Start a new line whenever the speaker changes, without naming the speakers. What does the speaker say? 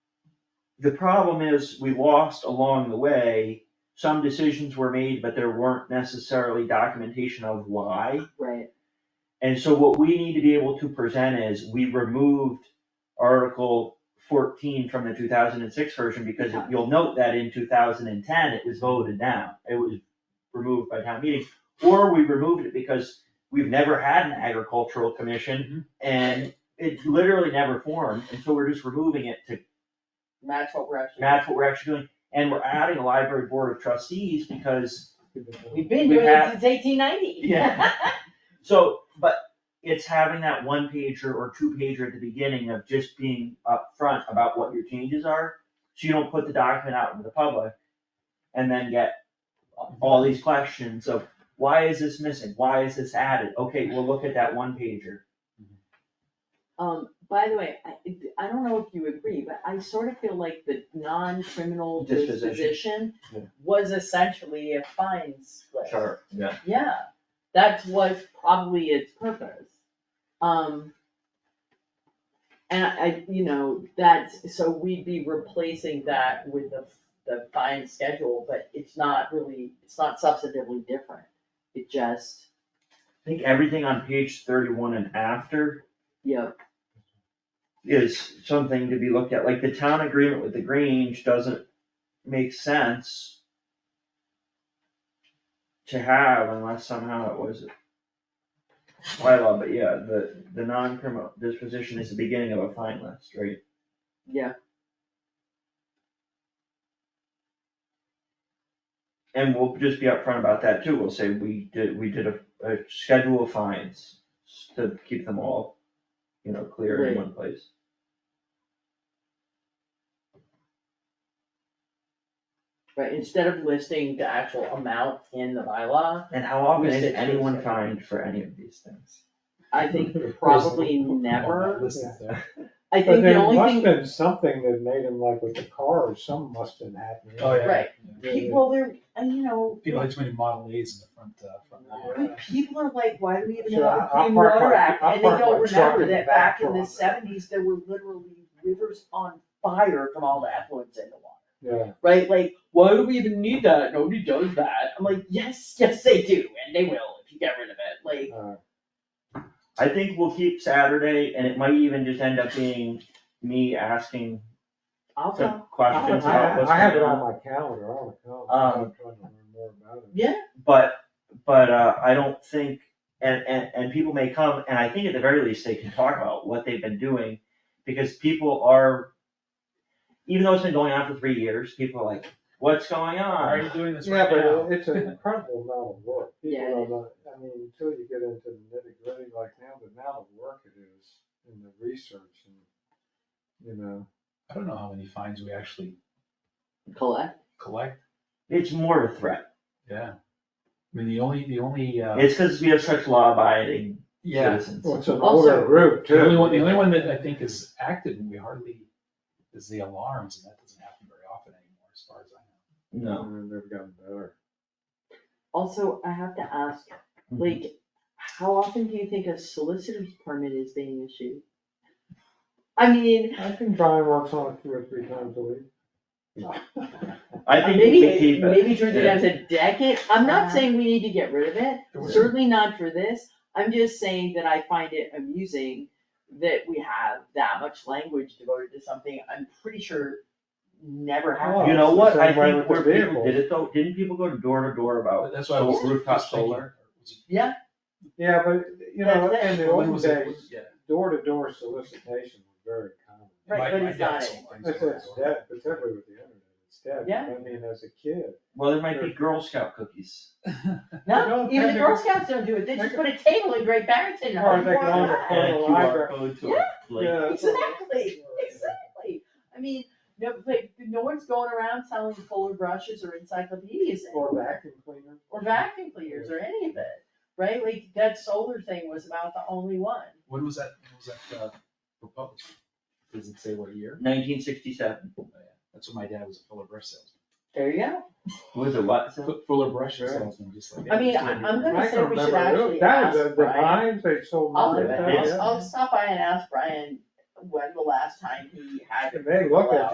the problem is, we lost along the way, some decisions were made, but there weren't necessarily documentation of why.
right,
And so what we need to be able to present is, we removed Article fourteen from the two thousand and six version, because if you'll note that in two thousand and ten, it was voted down, it was removed by town meeting. Or we removed it because we've never had an agricultural commission, and it literally never formed, and so we're just removing it to
that's what we're actually.
that's what we're actually doing, and we're adding a library board of trustees because,
We've been
we
doing it
have-
since eighteen ninety.
Yeah. so, but it's having that one pager or two pager at the beginning of just being upfront about what your changes are, so you don't put the document out into the public and then get all these questions of, why is this missing? Why is this added? Okay, we'll look at that one pager.
Um, by the way, I, I don't know if you agree, but I sort of feel like the non-criminal
Disposition.
disposition
Yeah.
was essentially a fines list.
Sure, yeah.
Yeah, that was probably its purpose. Um. And I- I, you know, that's, so we'd be replacing that with the, the fine schedule, but it's not really, it's not substantively different. It just,
I think everything on page thirty-one and after
you know,
is something to be looked at, like the town agreement with the Grange doesn't make sense to have unless somehow it was a bylaw, but yeah, the, the non-criminal disposition is the beginning of a fine list, right?
yeah,
And we'll just be upfront about that too, we'll say we did, we did a, a schedule of fines to keep them all, you know, clear in
Right.
one place.
right, instead of listing the actual amount in the bylaw,
And how often
We
is
said-
anyone fined for any of these things?
I think probably never.
Listen to that.
I
But
think the
there
only
must
thing,
have been something that made him like with the car, or something must have happened.
Oh, yeah.
right,
Yeah.
people, they're, and you know,
People had too many Model A's in the front, uh, front lawn.
But people are like, why do we even
Sure,
have a
I'll
Clean
park
Water
my-
Act?
I'll
And they
park
don't
my truck
remember
in the
that back
back
in the
lot.
seventies, there were literally rivers on fire from all the effluents in the water.
Yeah,
Right, like, why do we even need that? Nobody does that. I'm like, yes, yes, they do, and they will if you get rid of it, like,
uh,
I think we'll keep Saturday and it might even just end up being me asking
I'll
some
go.
I,
questions about
I
what's
I have it
going
on
on.
my calendar, I'll come,
Um,
I'm trying to learn more about it.
But, but, uh, I don't think, and, and, and people may come, and I think at the very least, they can talk about what they've been doing. Because people are, even though it's been going on for three years, people are like, what's going
Why are
on?
you doing this
Yeah,
right now?
but it's an incredible amount of work, people
Yeah, it
are not, I mean, until you get into the nitty gritty like now, the amount of work it is in the research and, you know.
I don't know how many fines we actually
Collect?
collect,
It's more of a threat.
yeah. I mean, the only, the only, uh,
It's cause we have such law abiding
yeah,
citizens.
Well, it's an
Also-
older group too.
the only one, the only one that I think is active and we hardly, is the alarms, and that doesn't happen very often anymore, as far as I
No.
know.
And they've gotten better.
Also, I have to ask, like, how often do you think a solicitor's permit is being issued? I mean,
I think Brian works on it two or three times a week.
I
Uh,
think we
Maybe,
can keep it.
maybe drink it
Yeah.
as a decade, I'm
Uh,
not saying we need to get rid of it,
There was-
certainly not for this, I'm just saying that I find it amusing that we have that much language devoted to something I'm pretty sure never happened.
Oh. You know
Well,
what,
it's the
I
same way
think
with the
where people
vehicles.
did it though, didn't people go door to door
Oh,
about
That's why I was.
sol- rooftop
was thinking,
solar?
was it-
Yeah,
Yeah, but, you know,
That's it.
in the
when
old
was it?
days,
Yeah.
door-to-door solicitation was very common.
Right,
My-
but
my
it's
dad
not
sold
anymore.
things
It's,
door to
it's
door.
dead, particularly with the internet, it's dead.
Yeah.
I mean, as a kid.
Well, there might be Girl Scout cookies.
no,
No,
even the
they
Girl
just-
Scouts don't do it, they just put a table in Great Barrington. and
Or they
pour
can
it
only
out.
put
And a
a
QR
Oh, library.
code to
Yeah.
a link.
Yeah, it's all-
Exactly, exactly, I mean, no, like, no one's going around selling fuller brushes or encyclopedias anymore.
Or vacuum cleaner.
or vacuum cleaners or any of it, right? Like that solar thing was about the only one.
When was that, when was that, uh, proposed? Does it say what year?
Nineteen sixty-seven,
Oh, yeah. That's when my dad was a Fuller brush salesman.
There you go.
was it what?
Fu- Fuller brush
Sure.
salesman, just like.
I mean, I- I'm gonna
I
say
can
we should
remember it.
actually
That was
ask
the- the
Brian.
mines, they sold
I'll, do
mines
it.
out,
Yeah.
I'll,
yeah.
I'll stop by and ask Brian when the last time he had.
And they look at
Wow.